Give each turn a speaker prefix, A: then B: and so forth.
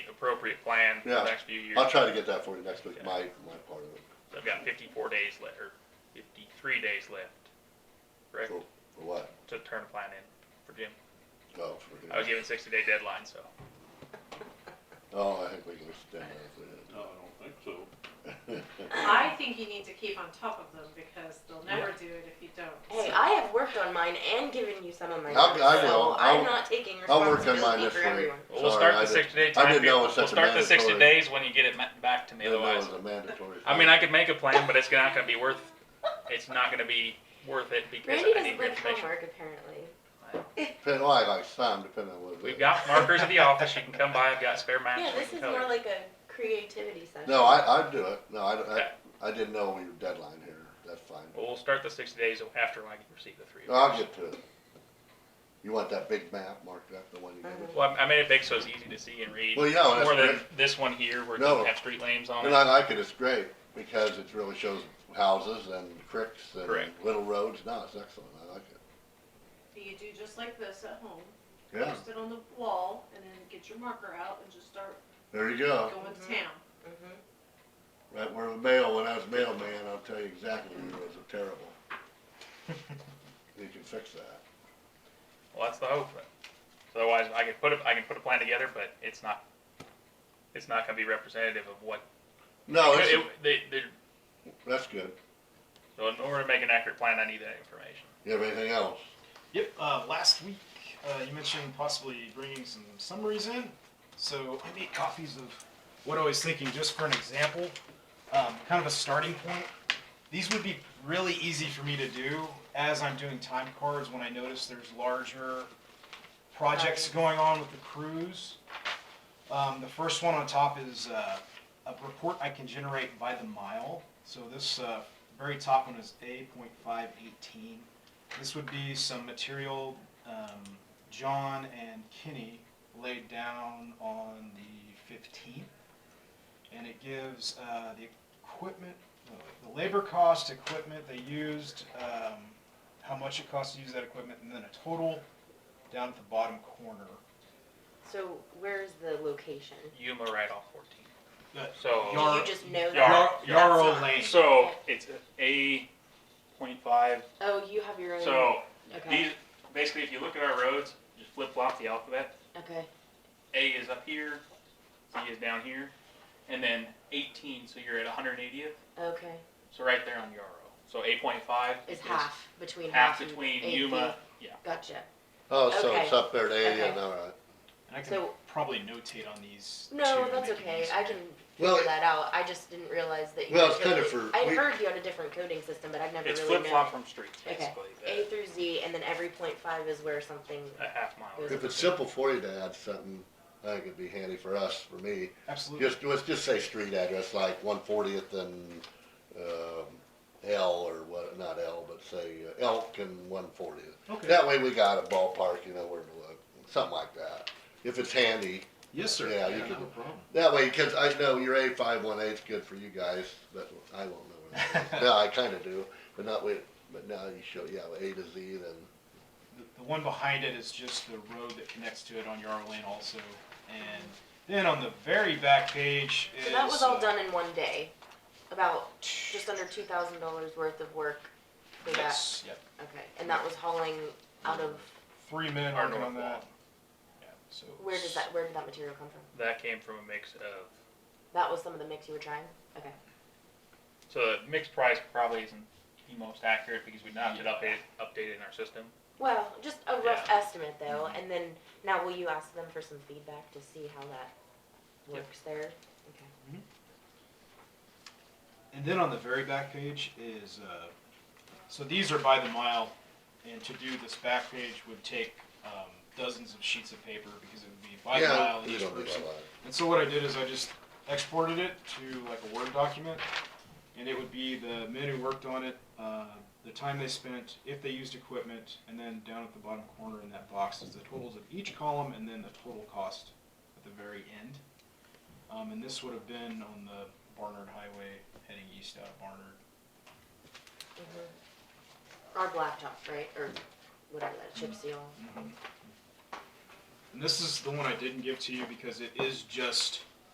A: appropriate plan for the
B: Yeah.
A: next few years.
B: I'll try to get that for you next week,
A: Yeah.
B: my, my part of it,
A: So I've got fifty-four days left, or fifty-three days left, correct,
B: for, for what?
A: to turn a plan in for Jim.
B: Oh, for
A: I was
B: him.
A: given sixty-day deadline, so.
B: Oh, I think we can extend that.
C: No, I don't think so.
D: I think you need to keep on top of them because they'll never do it if you don't.
E: Hey, I have worked on mine and given you some of my
B: I'll-
E: notes,
B: I will.
E: so I'm
B: I'll-
E: not taking
B: I'll work on mine
E: responsibility
B: this
E: for
B: week.
E: everyone.
A: Well, we'll
B: Sorry,
A: start
B: I
A: the
B: didn't-
A: sixty-day
B: I
A: time
B: didn't
A: period.
B: know it was
A: We'll
B: such a
A: start the sixty
B: mandatory-
A: days when you get it ma- back to me
B: Didn't know it
A: otherwise.
B: was a mandatory.
A: I mean, I could make a plan, but it's not gonna be worth, it's not gonna be worth it because
E: Randy
A: I need
E: doesn't
A: your
E: like
A: information.
E: homework apparently.
B: Depending, well, I like some, depending on what. it
A: We've
B: is.
A: got markers at the office. You can come by. I've got spare maps.
E: Yeah,
A: we
E: this
A: can
E: is
A: color.
E: more like a creativity session.
B: No, I, I'd do it, no, I, I,
A: Okay.
B: I didn't know your deadline here, that's fine.
A: Well, we'll start the sixty days after I receive the three. of
B: I'll
A: yours.
B: get to it. You want that big map marked up, the one you
E: Mm-hmm.
B: gave us?
A: Well, I I made it big so it's easy to see and read.
B: Well, yeah, well, that's
A: more than
B: great.
A: this one here where it
B: No.
A: doesn't have street names on
B: And
A: it.
B: I like it, it's great, because it really shows houses and creeks and
A: Correct.
B: little roads, no, it's excellent, I like it.
D: You do just like this at home,
B: Yeah,
D: post it on the wall and then get your marker out and just start
B: there you go,
D: going to
E: Mhm.
D: town.
E: Mhm.
B: right where the mail, when I was mailman, I'll tell you exactly where it was, terrible. You can fix that.
A: Well, that's the hope. So otherwise, I can put a, I can put a plan together, but it's not it's not going to be representative of what.
B: No,
A: it,
B: it's,
A: they, they're-
B: that's good,
A: so in order to make an accurate plan, I need that information.
B: you have anything else?
F: Yep. Uh, last week, uh, you mentioned possibly bringing some summaries in. So I made copies of what I was thinking, just for an example, um, kind of a starting point. These would be really easy for me to do as I'm doing time cards when I notice there's larger projects going on with the crews. Um, the first one on top is uh, a report I can generate by the mile. So this uh, very top one is A.518. This would be some material um, John and Kenny laid down on the 15th. And it gives uh, the equipment, no, the labor cost, equipment they used, um, how much it cost to use that equipment, and then a total down at the bottom corner.
E: So where's the location?
A: Yuma right off 14.
F: That-
A: So
F: Yar-
E: you just know
A: Yar-
E: that.
F: Yar- Yarrow
E: That's
F: Lane.
A: So it's a point five.
E: Oh, you have your own.
A: So
E: okay.
A: these basically, if you look at our roads, just flip flop the alphabet.
E: okay.
A: A is up here, Z is down here, and then 18. So you're at 180th.
E: Okay.
A: So right there on Yarrow. So 8.5
E: It's half between
A: half
E: half, and
A: between
E: AP.
A: Yuma. Yeah.
E: Gotcha.
B: Oh, so it's
E: Okay.
B: up there at eighty,
E: Okay.
B: all right.
F: And I can
E: So-
F: probably notate on these.
E: No,
F: too,
E: that's
F: make it
E: okay.
F: easier.
E: I can figure
B: Well,
E: that out. I just didn't realize that you.
B: Well,
E: had
B: it's kinda
E: coded-
B: for-
E: I
B: we-
E: heard you had a different coding system, but I've never
A: It's
E: really
A: flip
E: known.
A: flop from streets
E: Okay.
A: basically.
E: A through Z, and then every point five is where something.
F: Uh,
A: The, a half mile.
E: Goes
B: If it's simple for you to add something, I think it'd be handy for us, for me.
F: Absolutely.
B: Just, let's just say street address, like one fortieth and, um, L or what, not L, but say uh, Elk and one fortieth.
F: Okay.
B: That way we got a ballpark, you know, where to look, something like that. If it's handy,
F: yes, sir.
B: Yeah, you
F: no
B: can-
F: problem.
B: that way, cause I know your A five one eight's good for you guys, but I won't know. what it is. No, I kinda do, but not with, but now you show, yeah, A to Z then.
F: The, the one behind it is just the road that connects to it on Yarrow Lane also. And then on the very back page is.
E: So that was all
F: uh,
E: done in one day, about just under two thousand dollars worth of work for that.
F: Yes, yep.
E: Okay, and that was hauling out of
F: Three men
A: Our
F: working on
A: north
F: that. Yeah, so
E: where does
F: it's-
E: that where did that material come from?
A: That came from a mix of.
E: That was some of the mix you were trying. Okay.
A: So the mixed price probably isn't the most accurate because we not have it updated, updated in our system.
E: Well, just a rough estimate though, and then now will you ask them for some feedback to see how that
A: Yep.
E: works there? Okay.
F: And then on the very back page is, uh, so these are by the mile, and to do this back page would take um, dozens of sheets of paper because it would be by the
B: Yeah,
F: mile
B: you
F: each
B: don't do
F: person.
B: that.
F: And so what I did is I just exported it to like a Word document, and it would be the men who worked on it, uh, the time they spent, if they used equipment, and then down at the bottom corner in that box is the totals of each column and then the total cost at the very end. Um, and this would have been on the Barnard Highway heading east out of Barnard.
E: Mhm. Our blacktop, right, or whatever that chip seal.
F: And this is the one I didn't give to you because it is just